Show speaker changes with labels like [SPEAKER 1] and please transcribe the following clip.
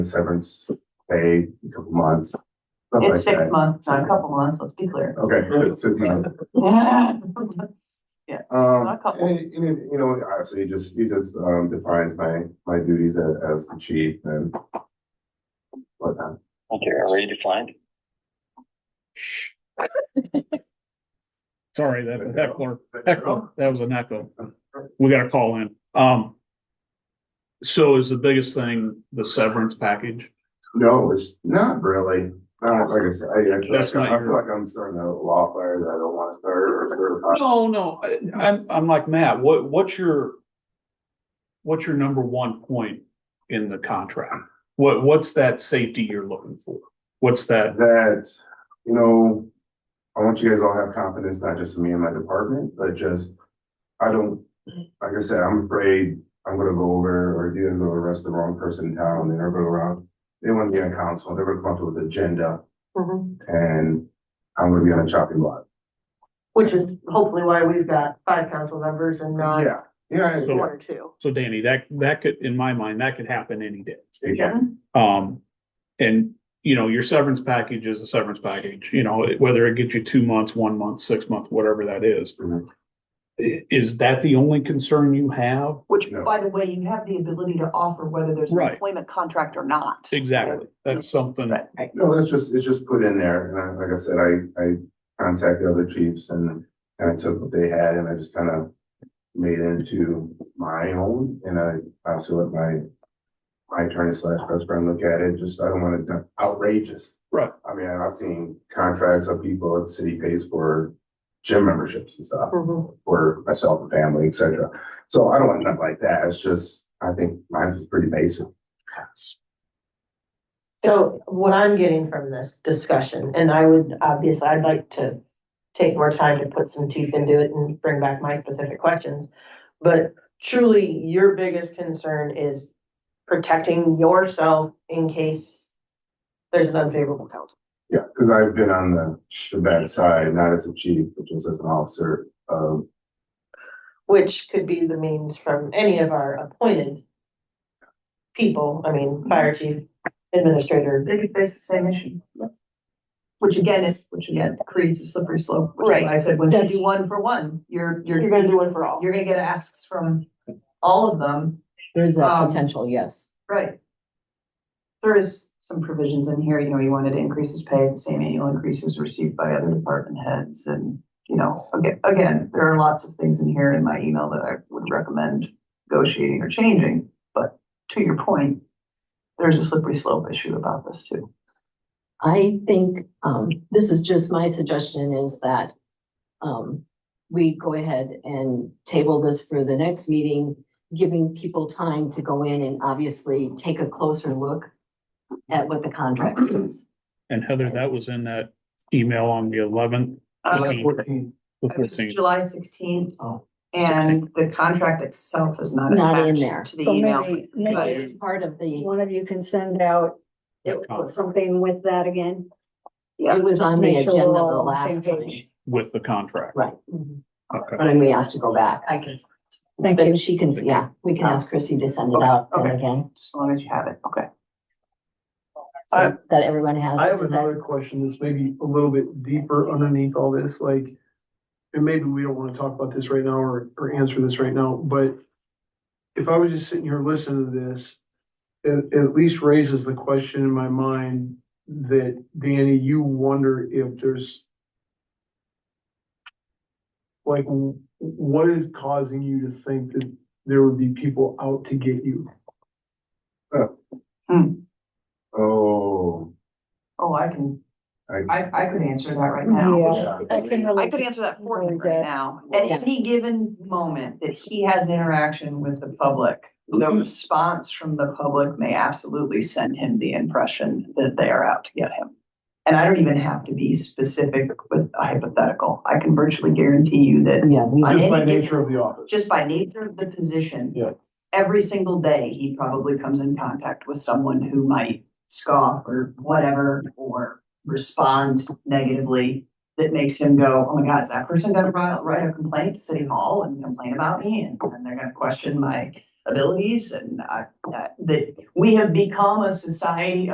[SPEAKER 1] severance pay, a couple months. stuff like
[SPEAKER 2] It's six
[SPEAKER 1] that.
[SPEAKER 2] months, not a couple months, let's be clear.
[SPEAKER 1] Okay, good, six months.
[SPEAKER 2] Well,
[SPEAKER 1] Um,
[SPEAKER 2] Not a couple.
[SPEAKER 1] and, it- and it, you know, obviously, it just, it just, um, defines my, my duties as, as the chief and whatnot.
[SPEAKER 3] Okay, already defined.
[SPEAKER 4] Sorry, that, that clerk, echo, that was an echo. We got a call in. Um. So is the biggest thing the severance package?
[SPEAKER 1] No, it's not really, not, like I said, I, I feel
[SPEAKER 4] That's
[SPEAKER 1] like, I
[SPEAKER 4] not
[SPEAKER 1] feel
[SPEAKER 4] your-
[SPEAKER 1] like I'm starting a law fire that I don't want to start or start. a-
[SPEAKER 4] No, no, I, I'm, I'm like Matt, what, what's your? What's your number one point in the contract? What, what's that safety you're looking for? What's that?
[SPEAKER 1] That, you know, I want you guys all to have confidence, not just in me and my department, but just, I don't, like I said, I'm afraid I'm gonna go over or you're gonna arrest the wrong person in town, they're gonna go around. They want to be on council, they're gonna come up with an agenda and I'm gonna be on a chopping block.
[SPEAKER 5] Which is hopefully why we've got five council members and not
[SPEAKER 1] Yeah, yeah,
[SPEAKER 4] So-
[SPEAKER 5] one or two.
[SPEAKER 4] So Danny, that, that could, in my mind, that could happen any day.
[SPEAKER 1] it can,
[SPEAKER 4] Um, and, you know, your severance package is a severance package, you know, whether it gets you two months, one month, six months, whatever that is.
[SPEAKER 1] Mhm.
[SPEAKER 4] I- Is that the only concern you have?
[SPEAKER 2] Which,
[SPEAKER 1] No.
[SPEAKER 2] by the way, you have the ability to offer whether there's an
[SPEAKER 4] Right.
[SPEAKER 2] employment contract or not.
[SPEAKER 4] Exactly. That's something,
[SPEAKER 2] Right, right.
[SPEAKER 1] No, that's just, it's just put in there, and I, like I said, I, I contacted other chiefs and, and I took what they had and I just kind of made it into my own, and I also let my, my attorney slash best friend look at it, just, I don't want it done outrageous.
[SPEAKER 4] Right.
[SPEAKER 1] I mean, I've seen contracts of people that the city pays for gym memberships and stuff,
[SPEAKER 5] Mhm.
[SPEAKER 1] for myself and family, et cetera. So I don't want nothing like that, it's just, I think mine was pretty basic.
[SPEAKER 5] So what I'm getting from this discussion, and I would, obviously, I'd like to take more time to put some teeth into it and bring back my specific questions. But truly, your biggest concern is protecting yourself in case there's an unfavorable council.
[SPEAKER 1] Yeah, because I've been on the, the bad side, not as a chief, but just as an officer, um,
[SPEAKER 5] which could be the means from any of our appointed people, I mean, fire chief, administrator.
[SPEAKER 2] They could face the same issue. Which again, is, which again creates a slippery slope. which is
[SPEAKER 5] Right.
[SPEAKER 2] why I said, when you
[SPEAKER 5] That's-
[SPEAKER 2] do one for one, you're, you're,
[SPEAKER 5] You're gonna do one for all.
[SPEAKER 2] you're gonna get asks from all of them
[SPEAKER 6] There's
[SPEAKER 2] Um,
[SPEAKER 6] that potential, yes.
[SPEAKER 2] Right. There is some provisions in here, you know, you wanted to increase his pay, at the same annual increases received by other department heads and, you know, again, again, there are lots of things in here in my email that I would recommend negotiating or changing, but to your point, there's a slippery slope issue about this too.
[SPEAKER 6] I think, um, this is just my suggestion is that, um, we go ahead and table this for the next meeting, giving people time to go in and obviously take a closer look at what the contract is.
[SPEAKER 4] and Heather, that was in that email on the eleventh,
[SPEAKER 2] Uh,
[SPEAKER 4] Okay. the fourteenth.
[SPEAKER 2] July sixteenth,
[SPEAKER 6] Oh.
[SPEAKER 2] and the contract itself is not
[SPEAKER 6] Not in there.
[SPEAKER 2] to the
[SPEAKER 7] So
[SPEAKER 2] email.
[SPEAKER 7] maybe, maybe
[SPEAKER 6] It's Part of the,
[SPEAKER 7] one of you can send out
[SPEAKER 4] That contract.
[SPEAKER 7] something with that again.
[SPEAKER 6] it was on the
[SPEAKER 7] Make sure we're
[SPEAKER 6] agenda the
[SPEAKER 7] all on the same
[SPEAKER 6] last time.
[SPEAKER 7] page.
[SPEAKER 4] with the contract.
[SPEAKER 6] Right, Mm-hmm.
[SPEAKER 4] Okay.
[SPEAKER 6] but I may ask to go back. I can,
[SPEAKER 7] Thank you.
[SPEAKER 6] but she can, yeah, we can ask Chrissy to send it out then
[SPEAKER 2] Okay.
[SPEAKER 6] again,
[SPEAKER 2] Just as long as you have it, okay.
[SPEAKER 8] I-
[SPEAKER 6] so that everyone has.
[SPEAKER 8] I
[SPEAKER 6] it.
[SPEAKER 8] have
[SPEAKER 6] Does that-
[SPEAKER 8] another question that's maybe a little bit deeper underneath all this, like, and maybe we don't wanna talk about this right now or, or answer this right now, but if I was just sitting here listening to this, it, it at least raises the question in my mind that, Danny, you wonder if there's like, w- what is causing you to think that there would be people out to get you?
[SPEAKER 1] oh,
[SPEAKER 2] Hmm. Oh, I can,
[SPEAKER 1] I,
[SPEAKER 2] I, I could answer that right now.
[SPEAKER 1] yeah.
[SPEAKER 7] I can
[SPEAKER 2] I
[SPEAKER 7] relate.
[SPEAKER 2] could answer that for him
[SPEAKER 7] Always
[SPEAKER 2] right
[SPEAKER 7] that-
[SPEAKER 2] now. At
[SPEAKER 6] Yeah.
[SPEAKER 2] any given moment that he has an interaction with the public, the
[SPEAKER 6] Mm-hmm.
[SPEAKER 2] response from the public may absolutely send him the impression that they are out to get him. And I don't even have to be specific with a hypothetical. I can virtually guarantee you that
[SPEAKER 6] Yeah, we
[SPEAKER 2] I
[SPEAKER 8] Just by
[SPEAKER 2] didn't get-
[SPEAKER 8] nature of the office.
[SPEAKER 2] just by nature of the position.
[SPEAKER 8] Yeah.
[SPEAKER 2] Every single day, he probably comes in contact with someone who might scoff or whatever, or respond negatively. That makes him go, oh my God, is that person gonna write, write a complaint to City Hall and complain about me? And then they're gonna question my abilities and, uh, that we have become a society